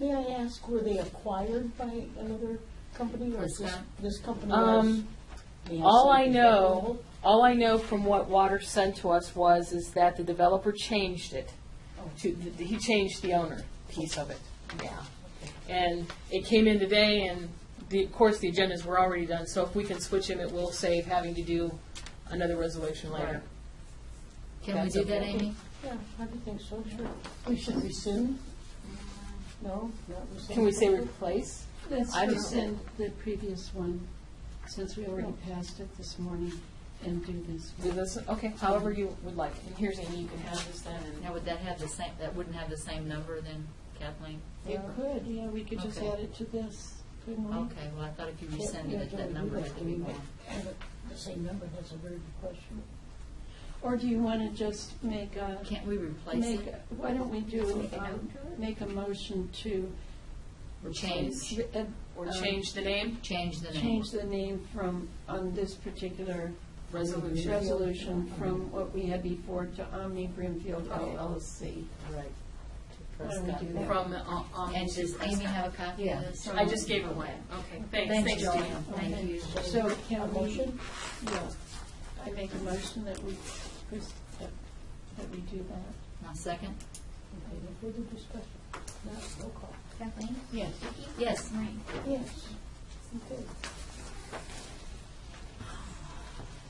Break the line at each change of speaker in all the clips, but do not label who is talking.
May I ask, were they acquired by another company or is this,
Prescott.
this company was?
Um,
may
all
say
I
is
know, all I know from what Water sent to us was, is that the developer changed it. Oh, To, th- he changed the owner piece of it, yeah. And it came in today and the, of course, the agendas were already done, so if we can switch them, it will save having to do another resolution later.
Can we
That's
do that,
okay.
Amy?
Yeah, I would think so, sure. We should rescind? No, not rescind.
Can we say replace?
Let's
I don't-
rescind the previous one, since we already passed it this morning, and do this
Do
one.
this, okay, however you would like. And here's Amy, you can have this then and.
Now, would that have the same, that wouldn't have the same number then, Kathleen?
It could, yeah, we could just
Okay. Oh.
add it to this, couldn't we?
Okay, well, I thought if you rescinded it, that number had to be more.
The same number, that's a very good question.
Or do you want to just make a,
Can't we replace
make,
it?
a- why don't we do,
Make a
um, make a motion to.
Or change,
re- uh,
Or
um,
change the name?
change the name?
Change the name from, on this particular
Resolution.
resolution, from what we had before to Omni Brimfield LLC.
Right.
Why don't we do that?
From, uh, um.
And does Amy have a copy of this?
I just gave it away. Okay, thanks,
Thanks,
thanks, Jan.
Joanne. Thank you.
So
A
can we,
motion?
yeah, I make a motion that we, that that we do that.
Now, second?
Okay, no further discussion. Not roll call.
Kathleen?
Yes.
Yes.
Yes. Okay.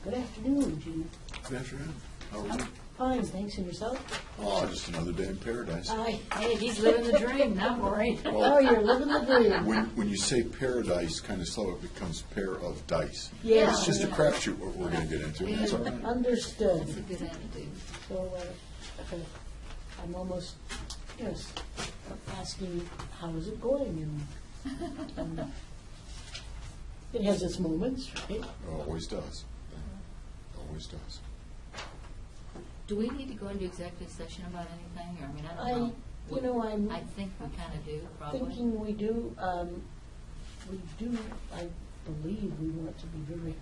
Good afternoon, Gina.
Good afternoon. How are you?
Fine, thanks, and yourself?
Oh, just another day in paradise.
I,
Hey, he's living the dream, not worried.
oh,
Well,
you're living the dream.
when, when you say paradise, kind of slow, it becomes pair of dice.
Yeah.
It's just a crapshoot what we're going to get into, and that's all right.
Understood.
That's a good attitude.
So, uh, okay, I'm almost, yes, asking, how is it going? And, um, It has its moments, right?
It Always does. Always does.
Do we need to go into executive session about anything, or, I mean,
I,
I don't
you know, I'm
know. I think we kind of do, probably.
thinking we do, um, we do, I believe we want to be very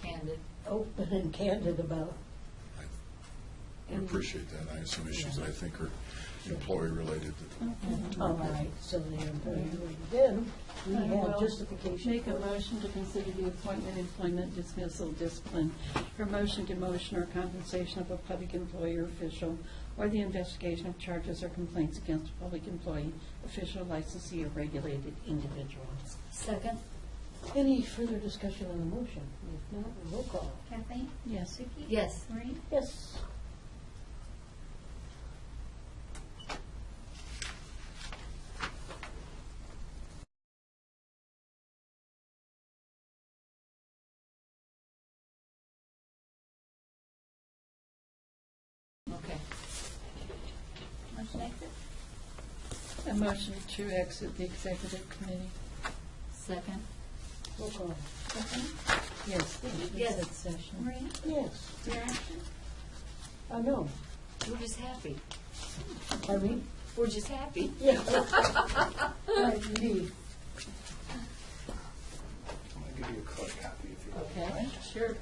Candid.
open and candid about,
I appreciate that. I have some issues that I think are employee-related.
all Mm-hmm. right, so they're very good. Then, we
I
have
will
justification.
Make a motion to consider the appointment, employment, dismissal, discipline, promotion, demotion, or compensation of a public employee or official, or the investigation of charges or complaints against a public employee, official, licensee, or regulated individual.
Second?
Any further discussion on the motion? If not, roll call.
Kathleen?
Yes.
Vicki?
Yes.
Maureen?
Yes.
Okay.
Motion exit?
A motion to exit the executive committee.
Second?
Roll call.
Kathleen?
Yes.
Yes.
Exit session.
Maureen?
Yes.
Your action?
Uh, no,
We're just happy.
pardon me?
We're just happy.
Yeah. Right, indeed.
I'll give you a card copy if you want.
Okay, sure.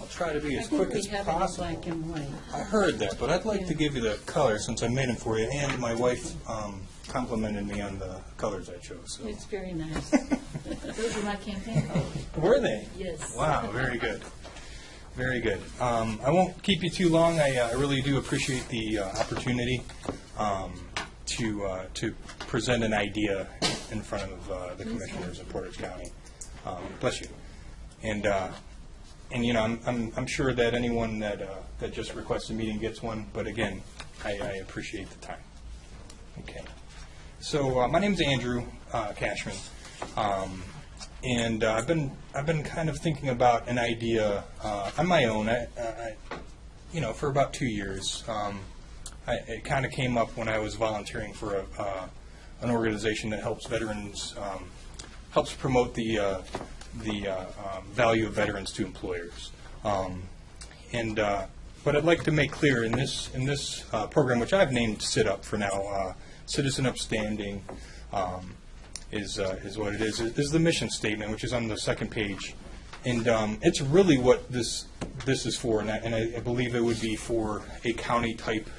I'll try to be
I
as
think
quick
we
as
have it in
possible.
black and white.
I heard that, but I'd like to give you the colors since I made them for you, and my wife um, complimented me on the colors I chose.
It's very nice.
Those are my campaign colors.
So. Were they?
Yes.
Wow, very good. Very good. Um, I won't keep you too long. I, uh, I really do appreciate the uh, opportunity um, to uh, to present an idea in front of uh, the commissioners of Portage County. Um, bless you. And uh, and you know, I'm I'm, I'm sure that anyone that uh, that just requests a meeting gets one. But again, I, I appreciate the time. Okay. So uh, my name's Andrew uh, Cashman, um, and uh, I've been I've been kind of thinking about an idea uh, on my own. I, I, I- you know, for about two years, um, I, it kind of came up when I was volunteering for a, uh, an organization that helps veterans um, helps promote the uh, the uh, um, value of veterans to employers. Um, and uh, what I'd like to make clear in this in this uh, program, which I've named Sit Up for now, uh, Citizen Upstanding, um, is uh, is what it is. It is the mission statement, which is on the second page, and um, it's really what this this is for. And I, and I, I believe it would be for a county type